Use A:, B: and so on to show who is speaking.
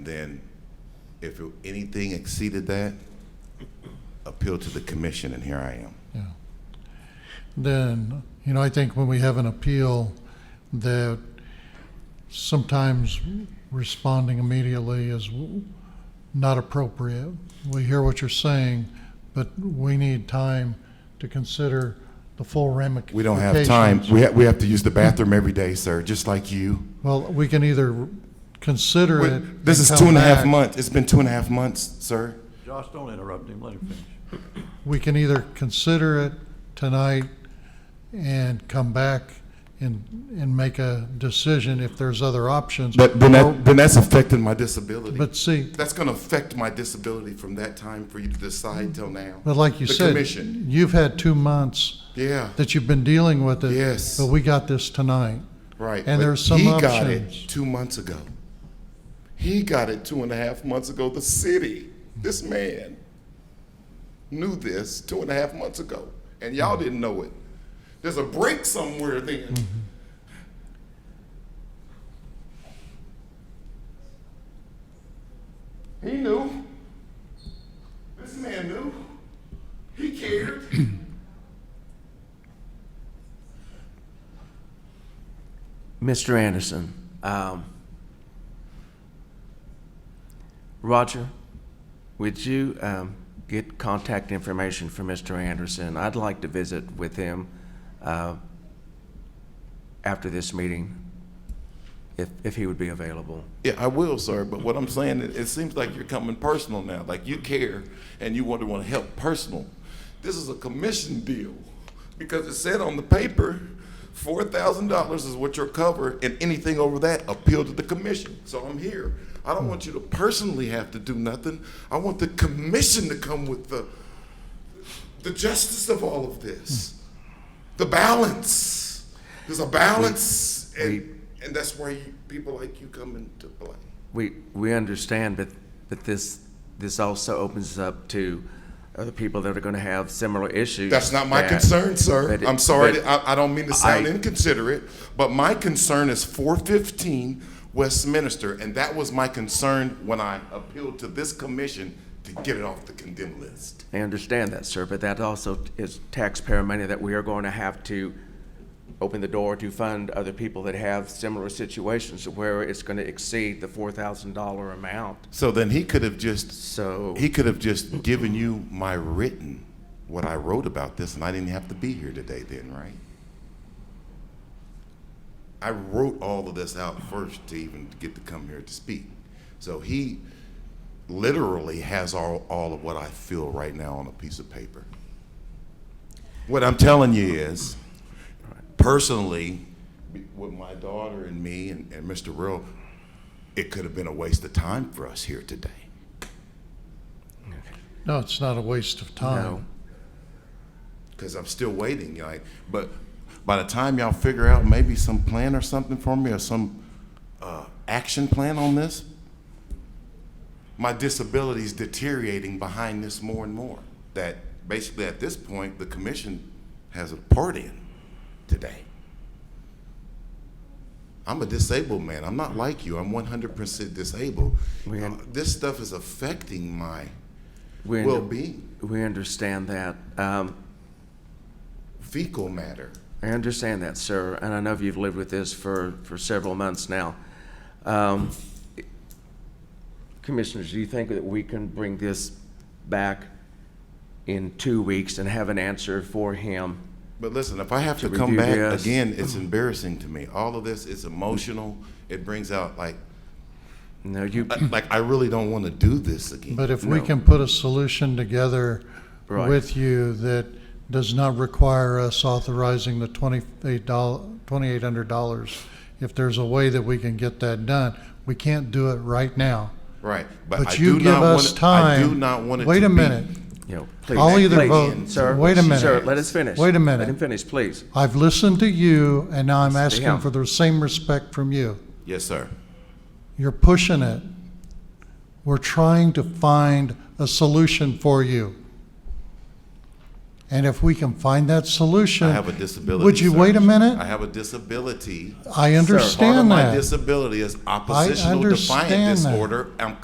A: Then if it- anything exceeded that, appeal to the commission, and here I am.
B: Yeah. Then, you know, I think when we have an appeal, that sometimes responding immediately is w- not appropriate. We hear what you're saying, but we need time to consider the full ramifications.
A: We don't have time. We have, we have to use the bathroom every day, sir, just like you.
B: Well, we can either consider
A: Wait,
B: it.
A: This is
B: come
A: two and a half
B: back.
A: months. It's been two and a half months, sir.
C: Josh, don't interrupt him, let him finish.
B: We can either consider it tonight and come back and, and make a decision if there's other options.
A: But then that, then that's affecting my disability.
B: But see,
A: That's gonna affect my disability from that time for you to decide till now.
B: but like you
A: The
B: said,
A: commission.
B: you've had two months
A: Yeah,
B: that you've been dealing with it.
A: Yes.
B: But we got this tonight.
A: right.
B: And
A: But
B: there's some
A: He got it
B: options.
A: two months ago. He got it two and a half months ago. The city, this man knew this two and a half months ago, and y'all didn't know it. There's a break somewhere then.
B: Mm-hmm.
A: He knew. This man knew. He cared.
D: Mr. Anderson, um, Roger, would you um, get contact information for Mr. Anderson? I'd like to visit with him uh, after this meeting, if, if he would be available.
A: Yeah, I will, sir. But what I'm saying, it, it seems like you're coming personal now. Like you care and you want to want to help personal. This is a commission deal because it said on the paper, four thousand dollars is what you're cover, and anything over that, appeal to the commission. So I'm here. I don't want you to personally have to do nothing. I want the commission to come with the the justice of all of this, the balance. There's a balance, and and that's why you, people like you come into play.
D: We, we understand, but, but this, this also opens up to other people that are going to have similar issues.
A: That's not my
D: that-
A: concern, sir.
D: that it-
A: I'm sorry.
D: that-
A: to- I, I don't mean to sound
D: I-
A: inconsiderate, but my concern is 415 Westminster, and that was my concern when I appealed to this commission to get it off the condemned list.
D: I understand that, sir, but that also is taxpayer money that we are going to have to open the door to fund other people that have similar situations where it's going to exceed the four thousand dollar amount.
A: So then he could have just
D: So,
A: he could have just given you my written what I wrote about this, and I didn't have to be here today. Then, right? I wrote all of this out first to even get to come here to speak. So he literally has all, all of what I feel right now on a piece of paper. What I'm telling you is, personally, with my daughter and me and, and Mr. Real, it could have been a waste of time for us here today.
B: No, it's not a waste of
D: no,
B: time.
A: because I'm still waiting. Like, but by the time y'all figure out maybe some plan or something for me or some uh, action plan on this, my disability's deteriorating behind this more and more. That basically at this point, the commission has a part in today. I'm a disabled man. I'm not like you. I'm 100% disabled.
D: We-
A: Uh, this stuff is affecting my
D: we,
A: well being,
D: we understand that. Um,
A: fecal matter.
D: I understand that, sir, and I know you've lived with this for, for several months now. Um, Commissioners, do you think that we can bring this back in two weeks and have an answer for him?
A: But listen, if I have to
D: Should we
A: come
D: do
A: back
D: this?
A: again, it's embarrassing to me. All of this is emotional. It brings out like,
D: No, you,
A: like I really don't want to do this again.
B: But if we
D: No.
B: can put a solution together
D: Right.
B: with you that does not require us authorizing the twenty-eight doll, twenty-eight hundred dollars, if there's a way that we can get that done, we can't do it right now.
A: right, but, I
B: But you
A: do
B: give
A: not
B: us
A: want.
B: time.
A: I do not want it
B: Wait
A: to
B: a
A: be-
B: minute.
D: you know, please.
B: I'll either
D: please,
B: vote-
D: Sir,
B: wait a minute.
D: Sir, let us finish.
B: Wait a minute.
D: Let him finish, please.
B: I've listened to you, and now I'm asking
D: down.
B: for the same respect from you.
A: Yes, sir.
B: You're pushing it. We're trying to find a solution for you. And if we can find that solution.
A: I have a disability.
B: Would you
A: sir.
B: wait a
A: I
B: minute?
A: have a disability.
B: I
A: Part of
B: understand that.
A: my disability is oppositional defiant
B: understand that.
A: disorder. I'm